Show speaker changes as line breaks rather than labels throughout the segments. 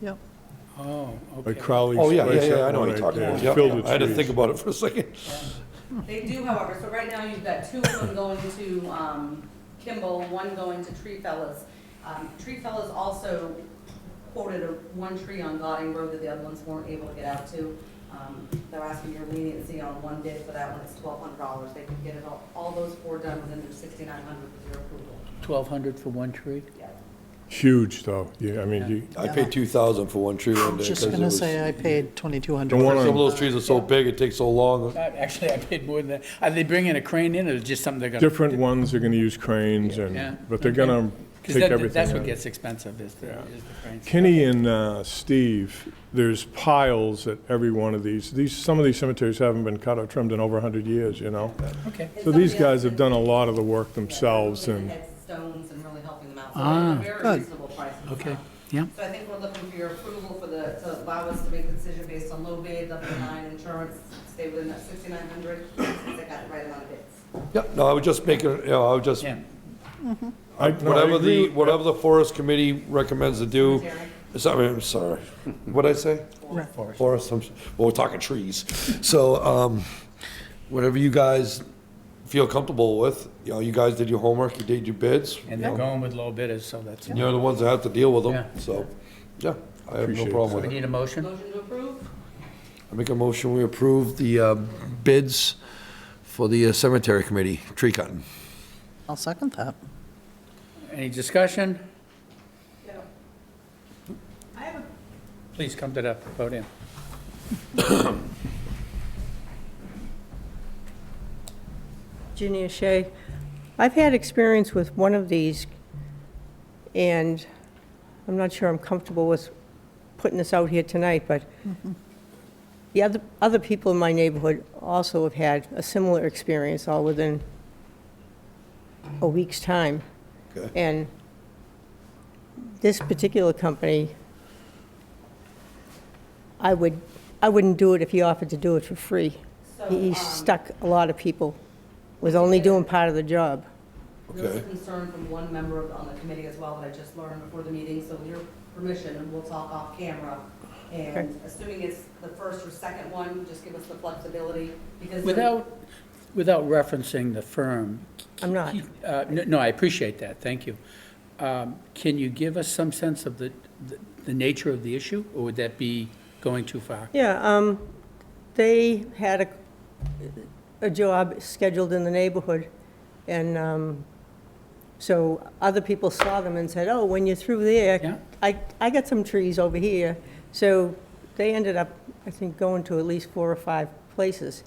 Yep.
Oh,
By
okay.
Crowley's
Oh,
place.
yeah, yeah, yeah, I
that
know
one
what you're
right
talking
there.
about. Yeah,
Filled with
I had to
trees.
think about it for a second.
They do, however, so right now you've got two of them going to um, Kimball, one going to Tree Fellas. Um, Tree Fellas also quoted a, one tree on Gauding Road that the other ones weren't able to get out to. Um, They're asking your leniency on one bid for that one, it's twelve hundred dollars. They can get it all, all those four done within their sixty-nine hundred with your approval.
1,200 for one tree?
Yeah.
Huge, though, yeah, I mean, you,
I paid two thousand for one tree one day.
Just
'cause it
gonna
was-
say uh, I paid twenty-two
Don't
hundred.
wanna-
Some of those trees are so big, it takes so long.
Uh, Actually, I paid more than that. Are they bringing a crane in, or is it just something they're going to?
different ones are gonna use cranes
Yeah.
and, but they're gonna take everything.
That's what
out.
gets expensive, is the, is the crane.
Kenny and uh, Steve, there's piles at every one of these. These, some of these cemeteries haven't been cut or trimmed in over 100 years, you know?
Okay.
So these guys have done a lot of the work themselves, and
And had stones and really helping them out.
Ah,
So it's a very
good.
reasonable price.
Okay, yeah.
So I think we're looking for your approval for the, to allow us to make the decision based on low bid, level nine insurance, stay within that sixty-nine hundred, since I got the right amount of bids.
Yeah, no, I would just make it, you know, I would just,
Yeah,
I, no, I
whatever
agree
the,
with-
whatever the forest committee recommends to do.
Cemetery.
Sorry, I'm sorry. What'd I say? Forest, I'm, well, we're talking trees. So, um, whatever you guys feel comfortable with, you know, you guys did your homework, you did your bids.
and they're going with low bidders, so that's,
You're the ones that have to deal with them,
Yeah.
so, yeah, I have no
Appreciate that.
problem with
we
it.
need a motion?
Motion to approve?
I make a motion, we approve the um, bids for the uh, cemetery committee, tree cutting.
I'll second that.
Any discussion?
No. I have a
Please come to the podium.
Junior Shea. I've had experience with one of these, and I'm not sure I'm comfortable with putting this out here tonight, but the other, other people in my neighborhood also have had a similar experience, all within a week's time.
Okay.
And this particular company, I would, I wouldn't do it if he offered to do it for free.
So,
He-
um,
He stuck a lot of people with only doing part of the job.
There was a
Okay.
concern from one member of- on the committee as well that I just learned before the meeting, so with your permission, we'll talk off camera.
Okay.
And assuming it's the first or second one, just give us the flexibility, because.
Without, without referencing the firm,
I'm not.
Uh, No, no, I appreciate that, thank you. Um, Can you give us some sense of the, the- the nature of the issue, or would that be going too far?
Yeah, um, they had a, a job scheduled in the neighborhood, and, um, so other people saw them and said, oh, when you're through
Yeah.
there, I, I got some trees over here. So they ended up, I think, going to at least four or five places.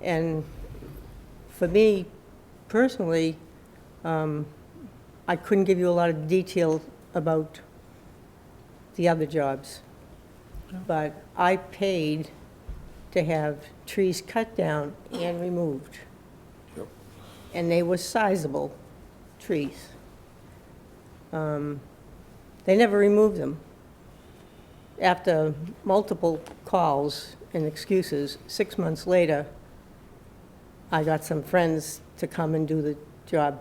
And for me personally, um, I couldn't give you a lot of detail about the other jobs. But I paid to have trees cut down and removed.
Yep.
And they were sizable trees. Um, They never removed them. After multiple calls and excuses, six months later, I got some friends to come and do the job.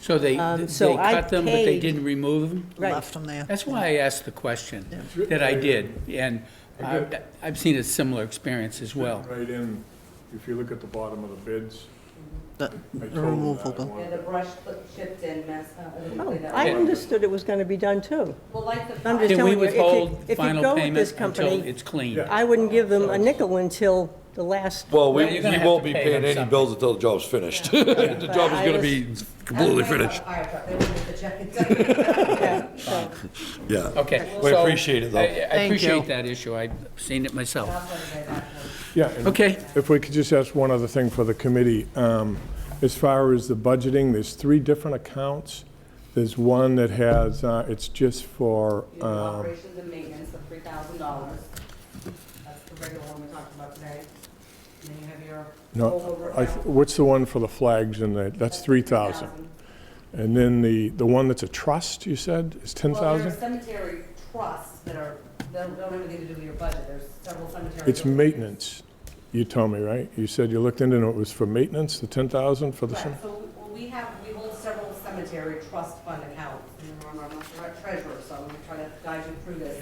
So they,
Um, so
they
I
cut them, but they
paid-
didn't remove them?
Right.
Left them there.
That's why I asked the question
Yeah.
that I did, and uh, I've seen a similar experience as well.
Right in, if you look at the bottom of the bids,
The
I told
the
them that I
removable.
wanted
And the brush chipped in, mess, uh, and
Oh,
cleaned that
I
up.
understood it was going to be done too.
Well, like the.
Can
I'm just
we
telling you, if you-
withhold
if you
final
go with this
payment until
company-
it's clean?
Yeah.
I wouldn't give them a nickel until the last.
Well, we,
Well, you're gonna
we
have
won't
to
be
pay
paying
them
any
something.
bills until the job's finished. The job is
I
gonna
was-
be completely
That's why I
finished.
bought a fire truck. They wouldn't get the jacket done.
Yeah, so-
Yeah.
Okay.
We
so
appreciate it, though.
I- I
Thank you.
appreciate that issue, I've seen it myself.
That's what I got for.
Yeah. and
Okay.
If we could just ask one other thing for the committee. Um, As far as the budgeting, there's three different accounts. There's one that has, uh, it's just for,
You have
um,
operations and maintenance of three thousand dollars. That's the regular one we talked about today. And then you have your
no,
rollover
I th-
account.
what's the one for the flags and that, that's 3,000. And then the, the one that's a trust, you said, is
Well, there are
10,000?
cemetery trusts that are, that don't have anything to do with your budget. There's several cemetery.
It's maintenance, you told me, right? You said you looked into it, and it was for maintenance, the 10,000 for the,
Right,
cem-
so we- we have, we hold several cemetery trust fund accounts. And remember, I'm not the right treasurer, so I'm gonna try to guide you through this.